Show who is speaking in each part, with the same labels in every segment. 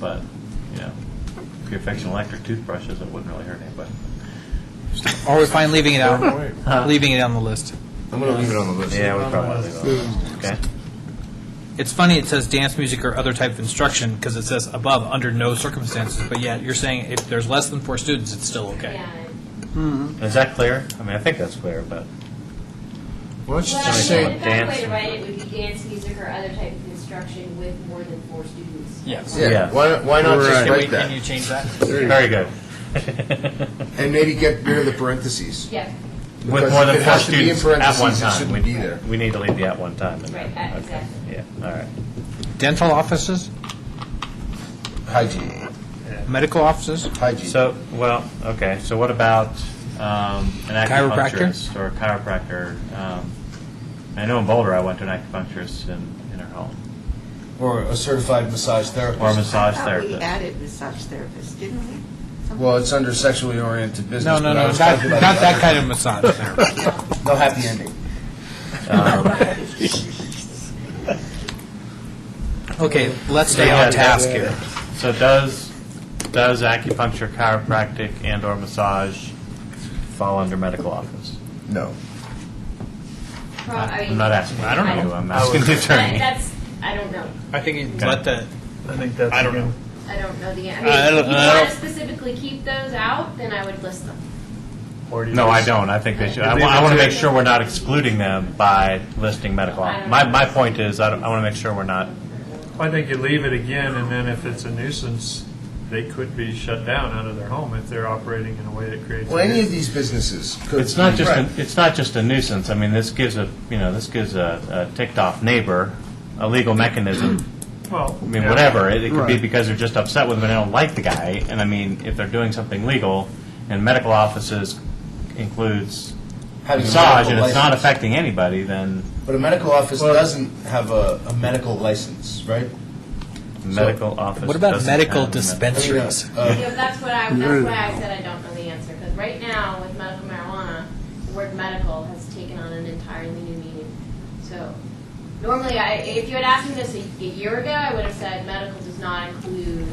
Speaker 1: But, you know, if you're fixing electric toothbrushes, it wouldn't really hurt anybody.
Speaker 2: Or Oh, we're fine leaving it out, leaving it on the list.
Speaker 3: I'm going to leave it on the list.
Speaker 1: Yeah, we probably will. Okay.
Speaker 2: It's funny, it says dance music or other type of instruction, because it says above, under no circumstances, but yet you're saying if there's less than four students, it's still okay.
Speaker 4: Yeah.
Speaker 1: Is that clear? I mean, I think that's clear, but
Speaker 3: Why don't you
Speaker 4: Well,
Speaker 3: just
Speaker 4: I
Speaker 3: say,
Speaker 4: mean, the best way
Speaker 1: dance.
Speaker 4: to write it would be dance, music, or other type of instruction with more than four students.
Speaker 2: Yes.
Speaker 3: yeah,
Speaker 1: Yeah.
Speaker 3: why why not just
Speaker 2: Can we,
Speaker 3: write
Speaker 2: can you
Speaker 3: that?
Speaker 2: change that?
Speaker 3: There you
Speaker 1: very
Speaker 3: go.
Speaker 1: good.
Speaker 3: And maybe get rid of the parentheses.
Speaker 4: Yeah,
Speaker 1: With
Speaker 3: Because
Speaker 1: more
Speaker 3: if
Speaker 1: than
Speaker 3: it
Speaker 1: four
Speaker 3: has to be in
Speaker 1: students at one
Speaker 3: parentheses, it
Speaker 1: time.
Speaker 3: shouldn't
Speaker 1: We-
Speaker 3: be there.
Speaker 1: We need to leave the at one time. in there.
Speaker 4: Right, uh,
Speaker 1: Okay.
Speaker 4: exactly.
Speaker 1: Yeah, all right.
Speaker 2: Dental offices,
Speaker 3: Hygiene,
Speaker 2: medical offices,
Speaker 3: hygiene.
Speaker 1: So, well, okay, so what about um, an
Speaker 2: Chiropractor?
Speaker 1: acupuncturist or a chiropractor? Um, I know in Boulder, I went to an acupuncturist in, in her home,
Speaker 3: Or a certified massage
Speaker 1: or a
Speaker 3: therapist.
Speaker 1: massage
Speaker 5: thought we
Speaker 1: therapist.
Speaker 5: added massage therapist, didn't we?
Speaker 3: Well, it's under sexually oriented business.
Speaker 2: no, no, no,
Speaker 3: but I
Speaker 2: not,
Speaker 3: was
Speaker 2: not
Speaker 3: talking about the
Speaker 2: that
Speaker 3: other-
Speaker 2: kind of massage therapist.
Speaker 3: No happy ending.
Speaker 1: Um,
Speaker 2: Okay, let's stay
Speaker 1: Yeah,
Speaker 2: on task
Speaker 3: yeah,
Speaker 2: here.
Speaker 1: So does, does acupuncture, chiropractic, and/or massage fall under medical office?
Speaker 3: No.
Speaker 4: Pro- I mean.
Speaker 1: I'm not asking you, um,
Speaker 2: I don't know.
Speaker 1: I'm asking the
Speaker 4: I-
Speaker 1: attorney.
Speaker 4: That's, I don't know.
Speaker 2: I think you
Speaker 1: Okay.
Speaker 2: let the,
Speaker 6: I think that's.
Speaker 2: I don't know.
Speaker 4: I don't know the, I
Speaker 2: I
Speaker 4: mean,
Speaker 2: don't-
Speaker 4: if you
Speaker 2: I
Speaker 4: want
Speaker 2: don't-
Speaker 4: to specifically keep those out, then I would list them.
Speaker 6: Or do you
Speaker 1: No, I
Speaker 6: just-
Speaker 1: don't, I think they should, I
Speaker 6: If they
Speaker 1: want to
Speaker 6: were to-
Speaker 1: make sure we're not excluding them by listing medical. office. My, my point is, I want to make sure we're not
Speaker 6: I think you leave it again, and then if it's a nuisance, they could be shut down out of their home if they're operating in a way that creates. a
Speaker 3: Well, any of
Speaker 6: nuisance.
Speaker 3: these businesses could.
Speaker 1: It's not just,
Speaker 3: Right.
Speaker 1: a- it's not just a nuisance, I mean, this gives a, you know, this gives a a ticked-off neighbor a legal mechanism,
Speaker 6: Well.
Speaker 1: I mean,
Speaker 6: yeah.
Speaker 1: whatever, it it could be because they're just upset with him and they don't like the guy, and I mean, if they're doing something legal, and medical offices includes
Speaker 3: Having a
Speaker 1: massage,
Speaker 3: medical
Speaker 1: and it's not
Speaker 3: license.
Speaker 1: affecting anybody, then
Speaker 3: But a medical office
Speaker 6: Well-
Speaker 3: doesn't have a, a medical license, right?
Speaker 1: medical office
Speaker 2: What about
Speaker 1: doesn't
Speaker 2: medical
Speaker 1: have a med-
Speaker 3: I mean, uh,
Speaker 2: dispensaries?
Speaker 3: uh,
Speaker 4: Yeah, that's what I, that's why I said I don't know the answer, because right now with medical marijuana, the word medical has taken on an entirely new meaning. So normally, I, if you had asked me this a a year ago, I would have said medical does not include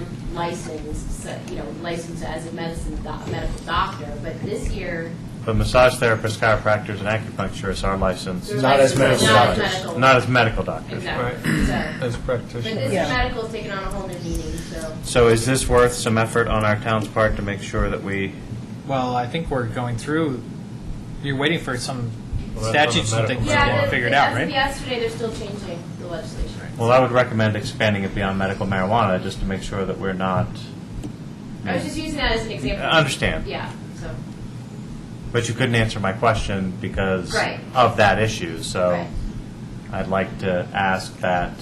Speaker 4: non-licensed, so, you know, licensed as a medicine, doc- medical doctor, but this year.
Speaker 1: But massage therapists, chiropractors, and acupuncturists are licensed,
Speaker 4: they're
Speaker 3: Not as
Speaker 4: licensed,
Speaker 3: medical
Speaker 4: not as
Speaker 3: doctors.
Speaker 4: medical.
Speaker 1: not as medical doctors.
Speaker 4: Exactly, so,
Speaker 2: As
Speaker 4: but
Speaker 2: practitioners.
Speaker 4: this medical's taken on a whole new meaning, so.
Speaker 1: So is this worth some effort on our town's part to make sure that we
Speaker 2: Well, I think we're going through, you're waiting for some
Speaker 6: Well, that's on
Speaker 2: statutes
Speaker 6: the
Speaker 2: and things
Speaker 6: medical
Speaker 2: to
Speaker 4: Yeah,
Speaker 2: get
Speaker 4: the-
Speaker 2: figured
Speaker 4: the-
Speaker 2: out,
Speaker 4: as of
Speaker 2: right?
Speaker 4: Yesterday, they're still changing the legislation.
Speaker 1: Well, I would recommend expanding it beyond medical marijuana, just to make sure that we're not,
Speaker 4: I was just using that as an
Speaker 1: I
Speaker 4: example.
Speaker 1: understand,
Speaker 4: Yeah, so,
Speaker 1: but you couldn't answer my question because
Speaker 4: Right.
Speaker 1: of that issue, so
Speaker 4: Right.
Speaker 1: I'd like to ask that,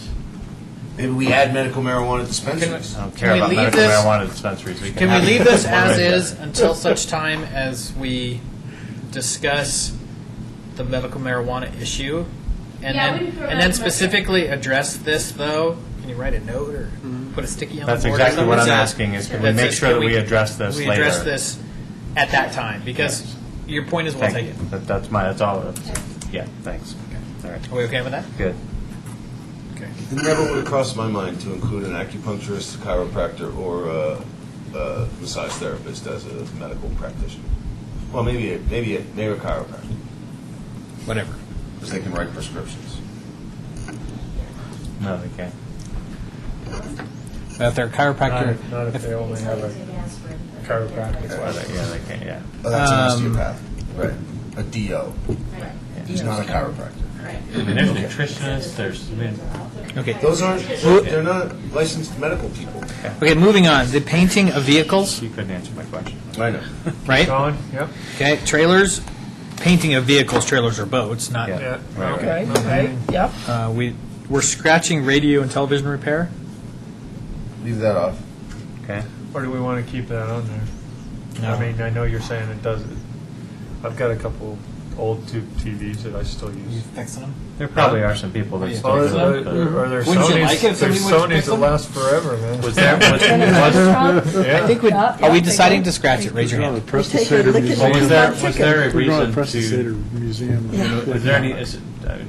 Speaker 3: Maybe uh, we add medical marijuana dispensaries.
Speaker 1: I don't
Speaker 2: Can
Speaker 1: care
Speaker 2: we
Speaker 1: about
Speaker 2: leave
Speaker 1: medical
Speaker 2: this-
Speaker 1: marijuana dispensaries.
Speaker 2: Can we
Speaker 1: have-
Speaker 2: leave this as is until such time as we discuss the medical marijuana issue? And
Speaker 4: Yeah, I
Speaker 2: then,
Speaker 4: wouldn't throw
Speaker 2: and
Speaker 4: that
Speaker 2: then
Speaker 4: much.
Speaker 2: specifically address this, though? Can you write a note or put a sticky
Speaker 1: Mm-hmm.
Speaker 2: on the board?
Speaker 1: That's
Speaker 2: or
Speaker 1: exactly what I'm
Speaker 2: something?
Speaker 1: asking, is can we
Speaker 2: That
Speaker 1: make
Speaker 2: says,
Speaker 1: sure
Speaker 2: can
Speaker 1: that we address this
Speaker 2: We address
Speaker 1: later?
Speaker 2: this at that time, because your point is well
Speaker 1: Thank you,
Speaker 2: taken.
Speaker 1: That- that's my, that's all, that's- yeah, thanks, all right,
Speaker 2: Are we okay with that?
Speaker 1: good.
Speaker 3: It never would have crossed my mind to include an acupuncturist, chiropractor, or a, a massage therapist as a medical practitioner. Well, maybe a, maybe a, maybe a chiropractor,
Speaker 2: Whatever.
Speaker 3: because they can write prescriptions.
Speaker 1: No, they can't.
Speaker 2: If they're a chiropractor,
Speaker 6: Not not if they only have a chiropractic
Speaker 1: Why
Speaker 6: license.
Speaker 1: they- Yeah, they can't, yeah.
Speaker 3: Oh, that's
Speaker 2: Um,
Speaker 3: an osteopath, right? A DO,
Speaker 4: Right,
Speaker 3: who's not a chiropractor.
Speaker 4: right.
Speaker 1: There's nutritionists, there's, I mean,
Speaker 2: okay.
Speaker 3: Those aren't, they're not licensed medical people.
Speaker 2: Okay, moving on. The painting of vehicles,
Speaker 1: you couldn't answer my question.
Speaker 3: I know.
Speaker 2: right?
Speaker 6: Colin, yep,
Speaker 2: Okay, trailers, painting of vehicles, trailers or boats, not,
Speaker 1: Yeah.
Speaker 6: yeah.
Speaker 1: Right,
Speaker 6: okay.
Speaker 1: right.
Speaker 6: Okay.
Speaker 7: Yep.
Speaker 2: uh, we, we're scratching radio and television repair?
Speaker 3: Leave that off.
Speaker 1: Okay.
Speaker 6: Or do we want to keep that on there? I mean, I know you're saying it does, I've got a couple old tube TVs that I still use.
Speaker 2: fixing them?
Speaker 1: There probably are some people that still
Speaker 6: Or
Speaker 1: do
Speaker 6: there
Speaker 1: that. but-
Speaker 6: are there
Speaker 2: Wouldn't you like it if
Speaker 6: Sonys, there's
Speaker 2: somebody would
Speaker 6: Sonys
Speaker 2: pick
Speaker 6: that
Speaker 2: them?
Speaker 6: last forever, man.
Speaker 1: Was there, was,
Speaker 6: Yeah.
Speaker 2: Oh, I think we, are we deciding to scratch it? Raise your hand.
Speaker 8: Press
Speaker 7: Take a look at
Speaker 1: was, was there, was there a
Speaker 8: We're going
Speaker 1: reason
Speaker 8: to
Speaker 1: to,
Speaker 8: Press the Seder
Speaker 1: was
Speaker 8: Museum.
Speaker 1: there any, is, it- uh, I mean,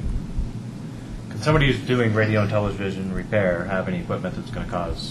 Speaker 1: can somebody who's doing radio and television repair have any equipment that's going to cause